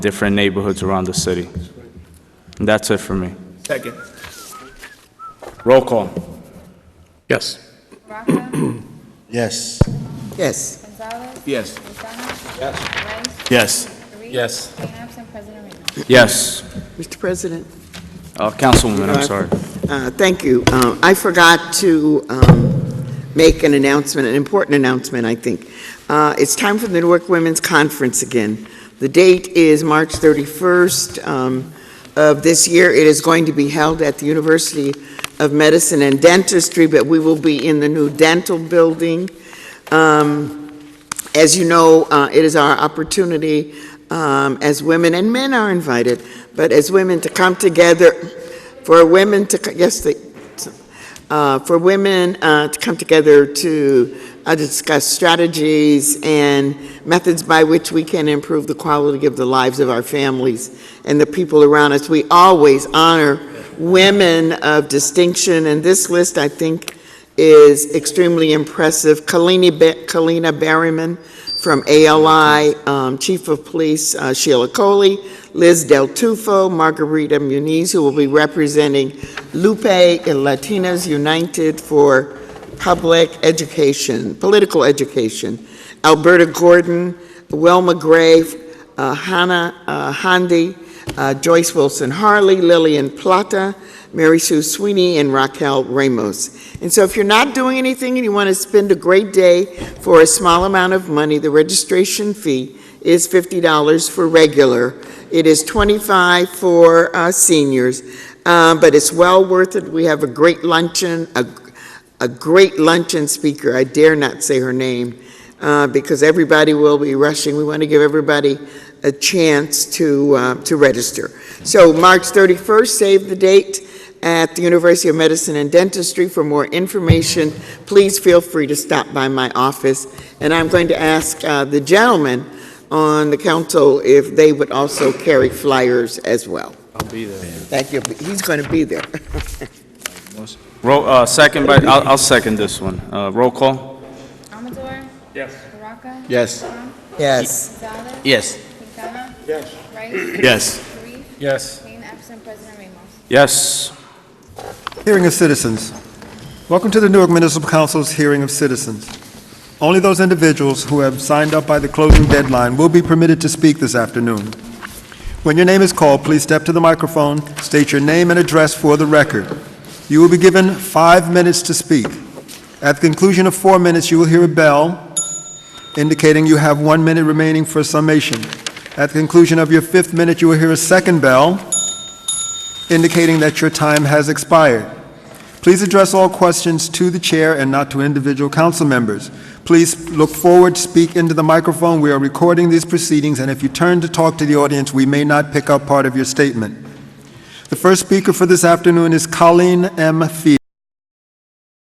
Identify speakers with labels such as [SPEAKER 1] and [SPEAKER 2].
[SPEAKER 1] different neighborhoods around the city. And that's it for me.
[SPEAKER 2] Second.
[SPEAKER 1] Roll call.
[SPEAKER 3] Yes.
[SPEAKER 4] Vaca,
[SPEAKER 5] Yes.
[SPEAKER 6] yes,
[SPEAKER 4] Gonzalez,
[SPEAKER 2] Yes.
[SPEAKER 4] McDonough? Yes.
[SPEAKER 5] Yes.
[SPEAKER 4] Rice? Karifi?
[SPEAKER 2] Yes.
[SPEAKER 4] And absent President Reed.
[SPEAKER 1] Yes.
[SPEAKER 6] Mr. President.
[SPEAKER 1] Uh, Councilwoman, I'm sorry.
[SPEAKER 6] Uh, Thank you. Uh, I forgot to um, make an announcement, an important announcement, I think. Uh, It's time for the Newark Women's Conference again. The date is March 31st um, of this year. It is going to be held at the University of Medicine and Dentistry, but we will be in the new dental building. Um, As you know, uh, it is our opportunity, um, as women, and men are invited, but as women to come together for women to, yes, the, uh, for women uh, to come together to uh, discuss strategies and methods by which we can improve the quality of the lives of our families and the people around us. We always honor women of distinction, and this list, I think, is extremely impressive. Kalini Ba- Kalina Berryman from ALI, um, Chief of Police uh, Sheila Coley, Liz Del Tufo, Margarita Muniz, who will be representing Lupe and Latinas United for Public Education, Political Education, Alberta Gordon, Wilma Gray, uh, Hannah uh, Handy, uh, Joyce Wilson Harley, Lillian Plata, Mary Sue Sweeney, and Raquel Ramos. And so if you're not doing anything and you want to spend a great day for a small amount of money, the registration fee is $50 for regular. It is 25 for uh, seniors, um, but it's well worth it. We have a great luncheon, a a great luncheon speaker. I dare not say her name uh, because everybody will be rushing. We want to give everybody a chance to, uh, to register. So March 31st, save the date at the University of Medicine and Dentistry. For more information, please feel free to stop by my office. And I'm going to ask uh, the gentlemen on the council if they would also carry flyers as well.
[SPEAKER 2] I'll be there.
[SPEAKER 6] Thank you. He's going to be there.
[SPEAKER 1] Roll, uh, second by, I'll, I'll second this one. Uh, roll call?
[SPEAKER 4] Amador?
[SPEAKER 2] Yes.
[SPEAKER 4] Vaca?
[SPEAKER 5] Yes.
[SPEAKER 4] Trump?
[SPEAKER 6] Yes.
[SPEAKER 4] Gonzalez?
[SPEAKER 5] Yes.
[SPEAKER 4] McDonough?
[SPEAKER 2] Yes.
[SPEAKER 4] Rice?
[SPEAKER 5] Yes.
[SPEAKER 4] Karifi?
[SPEAKER 2] Yes.
[SPEAKER 4] And absent President Ramos.
[SPEAKER 1] Yes.
[SPEAKER 7] Hearing of Citizens. Welcome to the Newark Municipal Council's Hearing of Citizens. Only those individuals who have signed up by the closing deadline will be permitted to speak this afternoon. When your name is called, please step to the microphone, state your name and address for the record. You will be given five minutes to speak. At the conclusion of four minutes, you will hear a bell indicating you have one minute remaining for summation. At the conclusion of your fifth minute, you will hear a second bell indicating that your time has expired. Please address all questions to the chair and not to individual council members. Please look forward, speak into the microphone. We are recording these proceedings, and if you turn to talk to the audience, we may not pick up part of your statement. The first speaker for this afternoon is Colleen M. Fee.